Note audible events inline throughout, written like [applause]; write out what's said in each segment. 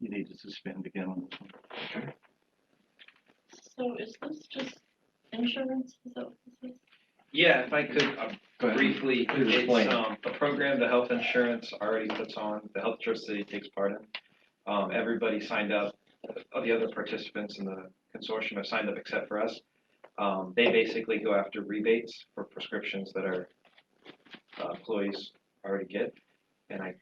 you need to suspend again on this one. So is this just insurance? Is that what this is? Yeah, if I could uh, Go ahead. briefly, Please explain. it's um a program the health insurance already puts on, the Health Trust City takes part in. Um everybody signed up, all the other participants in the consortium have signed up except for us. Um they basically go after rebates for prescriptions that our uh, employees already get. And I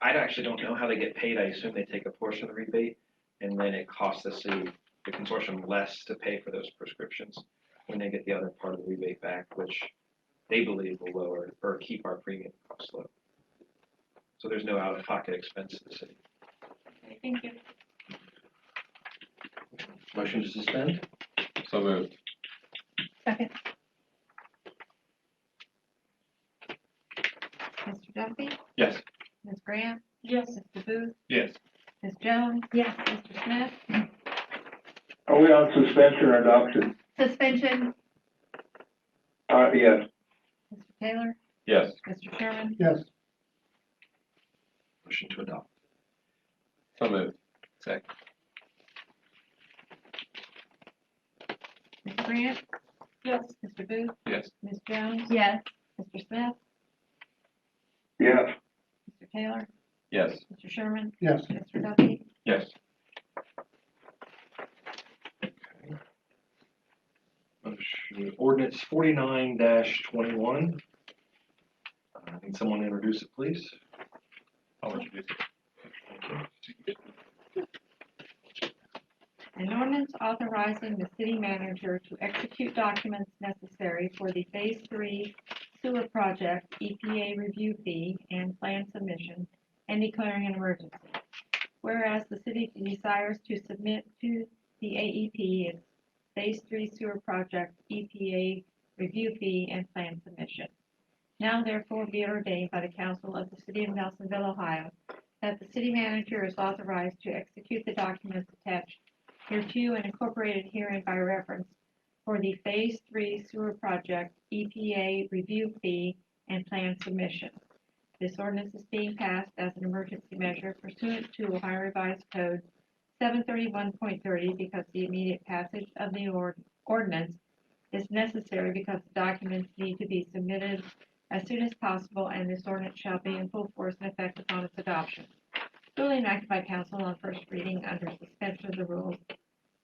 I actually don't know how they get paid, I assume they take a portion of the rebate and then it costs the city, the consortium less to pay for those prescriptions when they get the other part of the rebate back, which they believe will lower or keep our premium costs low. So there's no out-of-pocket expense to the city. Okay, Thank you. Motion to suspend? So moved. Second. Mr. Duffy, Yes. Ms. Grant, Yes, Mr. Booth, Yes. Ms. Jones. Yes. Mr. Smith, Are we on suspension or adoption? suspension, Uh, yes. Mr. Taylor, Yes. Mr. Sherman, Yes. Motion to adopt. So moved. Ms. Grant, yes, Mr. Booth, Yes. Ms. Jones. Yes, Mr. Smith, Yes. Mr. Taylor, Yes. Mr. Sherman, Yes. Mr. Duffy, Yes. Motion, ordinance forty-nine dash twenty-one. Uh, need someone to introduce it, please? I'll introduce it. An ordinance authorizing the city manager to execute documents necessary for the Phase Three sewer project EPA review fee and plan submission and declaring an emergency. Whereas the city desires to submit to the AEP its Phase Three sewer project EPA review fee and plan submission. Now therefore be it ordained by the council of the city of Nelsonville, Ohio, that the city manager is authorized to execute the documents attached hereto and incorporated herein by reference for the Phase Three Sewer Project EPA Review Fee and Plan Submission. This ordinance is being passed as an emergency measure pursuant to Ohio Revised Code seven thirty-one point thirty because the immediate passage of the ord- ordinance is necessary because the documents need to be submitted as soon as possible and this ordinance shall be in full force and effect upon its adoption. Duly enacted by council on first reading under suspension of the rules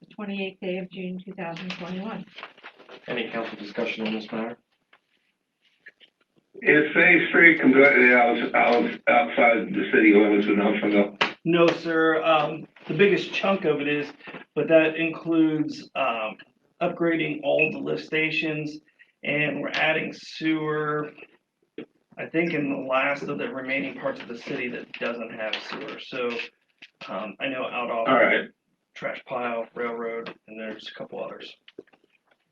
the twenty-eighth day of June, two thousand twenty-one. Any council discussion on this matter? Is Phase Three conducted out, out, outside the city limits of Nelsonville? No, sir. Um, the biggest chunk of it is, but that includes, um, upgrading all the lift stations and we're adding sewer. I think in the last of the remaining parts of the city that doesn't have sewer, so, um, I know out All off right, trash pile, railroad, and there's a couple others.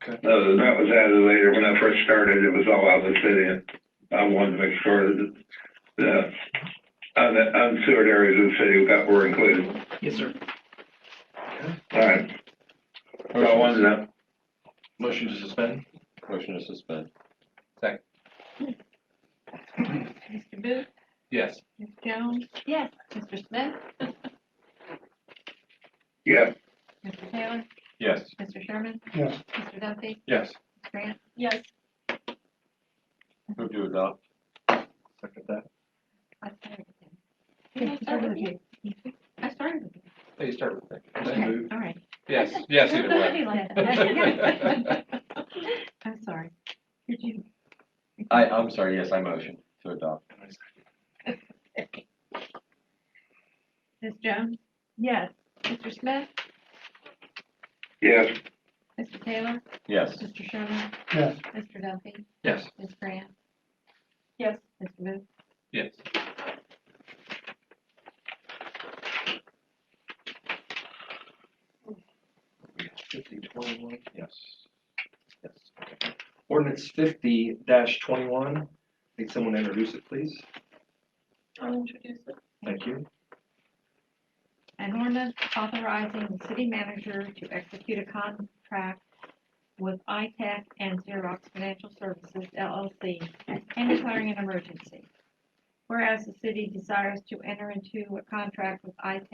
no, Uh, that was added later. When I first started, it was all out of the city. and I wanted to make sure that the, uh, the unsewered areas of the city got, were included. Yes, sir. All right, so I wanted to know. Motion to suspend? Motion to suspend. Mr. Booth, Yes. Ms. Jones, yes, Mr. Smith, Yes. Mr. Taylor, Yes. Mr. Sherman. Yes. Mr. Duffy, Yes. Ms. Grant, yes, Move to adopt. Second that. I started with Did I him. start with you? I started with him. Hey, you start with Okay, that. all right. Yes, yes, either way. Somebody like that. [laughs] I'm sorry. Did you? I, I'm sorry, yes, I motion to adopt. Ms. Jones? Yes. Mr. Smith, Yes. Mr. Taylor, Yes. Mr. Sherman, Yes. Mr. Duffy, Yes. Ms. Grant, yes. Mr. Booth. Yes. Fifty twenty-one? Yes. Yes. okay. Ordinance fifty dash twenty-one, need someone to introduce it, please? I'll introduce it. Thank you. An ordinance authorizing the city manager to execute a contract with ITech and Xerox Financial Services LLC and declaring an emergency. Whereas the city desires to enter into a contract with E ITech